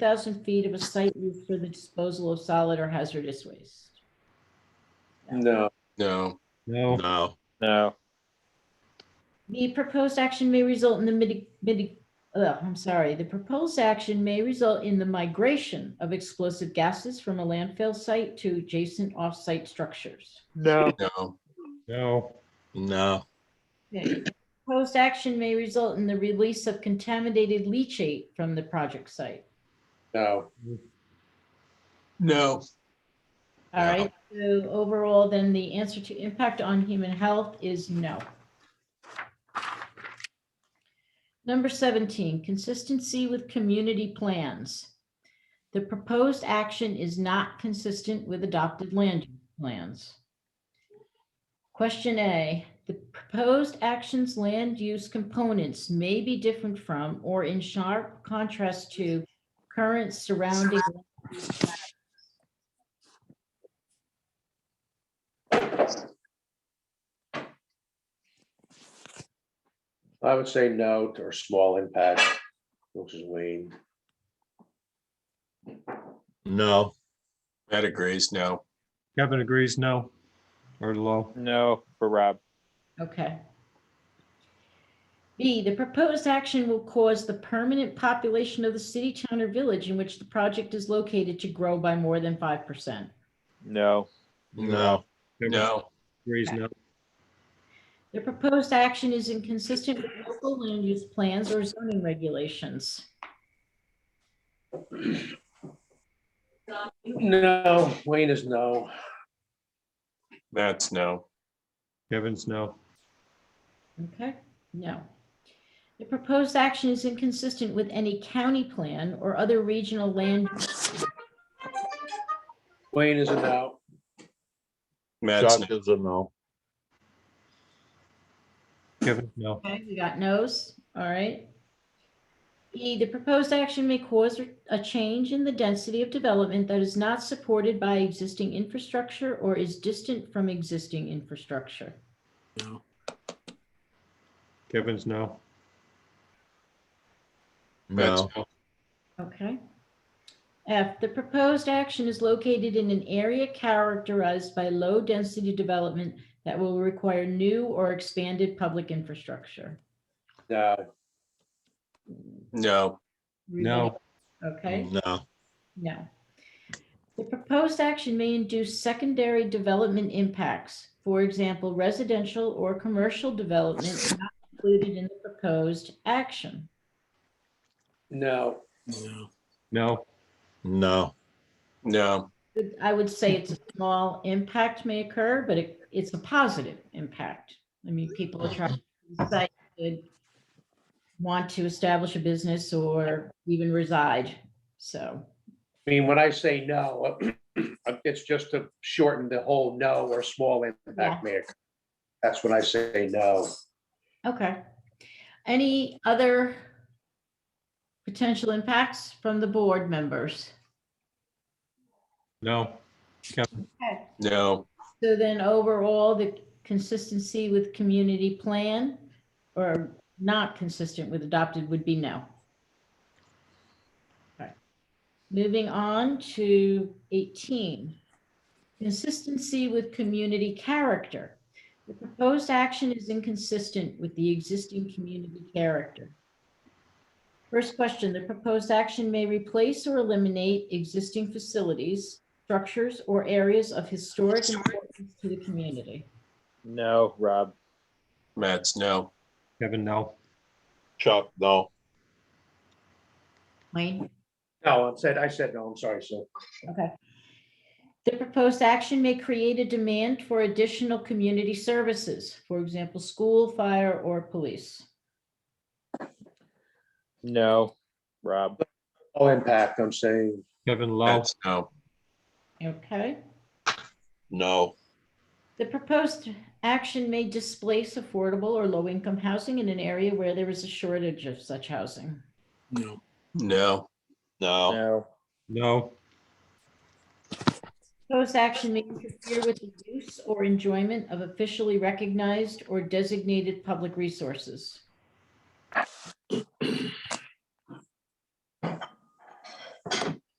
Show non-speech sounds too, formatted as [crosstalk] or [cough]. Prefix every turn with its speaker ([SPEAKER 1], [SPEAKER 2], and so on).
[SPEAKER 1] thousand feet of a site used for the disposal of solid or hazardous waste.
[SPEAKER 2] No.
[SPEAKER 3] No,
[SPEAKER 4] No,
[SPEAKER 3] no,
[SPEAKER 2] No.
[SPEAKER 1] The proposed action may result in the midi, midi, uh, I'm sorry, the proposed action may result in the migration of explosive gases from a landfill site to adjacent off-site structures.
[SPEAKER 2] No.
[SPEAKER 3] no,
[SPEAKER 4] no,
[SPEAKER 3] no,
[SPEAKER 1] Okay. Proposed action may result in the release of contaminated leachate from the project site.
[SPEAKER 2] No.
[SPEAKER 3] no,
[SPEAKER 1] All
[SPEAKER 3] Yeah.
[SPEAKER 1] right, so overall, then the answer to impact on human health is no. Number 17, consistency with community plans. The proposed action is not consistent with adopted land use plans. Question A, the proposed action's land use components may be different from or in sharp contrast to current surrounding
[SPEAKER 2] I would say no to- or small impact, which is Wayne.
[SPEAKER 3] no. That agrees, no.
[SPEAKER 4] Kevin agrees, no, or low.
[SPEAKER 5] No, for Rob.
[SPEAKER 1] Okay. B, the proposed action will cause the permanent population of the city, town, or village in which the project is located to grow by more than five percent.
[SPEAKER 5] No,
[SPEAKER 3] No,
[SPEAKER 4] Kevin
[SPEAKER 3] no,
[SPEAKER 4] Agrees, no,
[SPEAKER 1] The proposed action is inconsistent with local land use plans or zoning regulations.
[SPEAKER 2] No, Wayne is no.
[SPEAKER 3] that's no.
[SPEAKER 4] Kevin's no,
[SPEAKER 1] Okay, no. The proposed action is inconsistent with any county plan or other regional land.
[SPEAKER 2] Wayne is a no.
[SPEAKER 3] Matt's no.
[SPEAKER 4] Kevin's no,
[SPEAKER 1] Okay, we got no's, all right. E, the proposed action may cause a change in the density of development that is not supported by existing infrastructure or is distant from existing infrastructure.
[SPEAKER 4] Kevin's no,
[SPEAKER 3] Matt's
[SPEAKER 4] No.
[SPEAKER 3] no.
[SPEAKER 1] Okay. F, the proposed action is located in an area characterized by low density development that will require new or expanded public infrastructure.
[SPEAKER 2] No.
[SPEAKER 3] No,
[SPEAKER 4] no,
[SPEAKER 1] Okay.
[SPEAKER 3] no,
[SPEAKER 1] No. The proposed action may induce secondary development impacts, for example, residential or commercial development not included in the proposed action.
[SPEAKER 2] No.
[SPEAKER 4] no,
[SPEAKER 3] no, no,
[SPEAKER 1] I would say it's a small impact may occur, but it, it's a positive impact. I mean, people are trying to decide to want to establish a business or even reside, so.
[SPEAKER 2] I mean, when I say no, [clears throat] it's just to shorten the whole no or small impact may occur. That's when I say no.
[SPEAKER 1] Okay. Any other potential impacts from the board members?
[SPEAKER 4] no,
[SPEAKER 3] no,
[SPEAKER 1] So then overall, the consistency with community plan or not consistent with adopted would be no. Okay. Moving on to 18. Consistency with community character. The proposed action is inconsistent with the existing community character. First question, the proposed action may replace or eliminate existing facilities, structures, or areas of historic importance to the community.
[SPEAKER 5] no, Rob.
[SPEAKER 3] Matt's no.
[SPEAKER 4] Kevin, no,
[SPEAKER 3] Chuck, no.
[SPEAKER 1] Wayne?
[SPEAKER 2] No, I said, I said no, I'm sorry, so.
[SPEAKER 1] Okay. The proposed action may create a demand for additional community services, for example, school, fire, or police.
[SPEAKER 5] No, Rob.
[SPEAKER 2] All impact, I'm saying,
[SPEAKER 4] Kevin low,
[SPEAKER 3] Matt's no.
[SPEAKER 1] Okay?
[SPEAKER 3] No,
[SPEAKER 1] The proposed action may displace affordable or low-income housing in an area where there is a shortage of such housing.
[SPEAKER 3] no, no,
[SPEAKER 5] No,
[SPEAKER 4] no,
[SPEAKER 1] Proposed action may interfere with the use or enjoyment of officially recognized or designated public resources.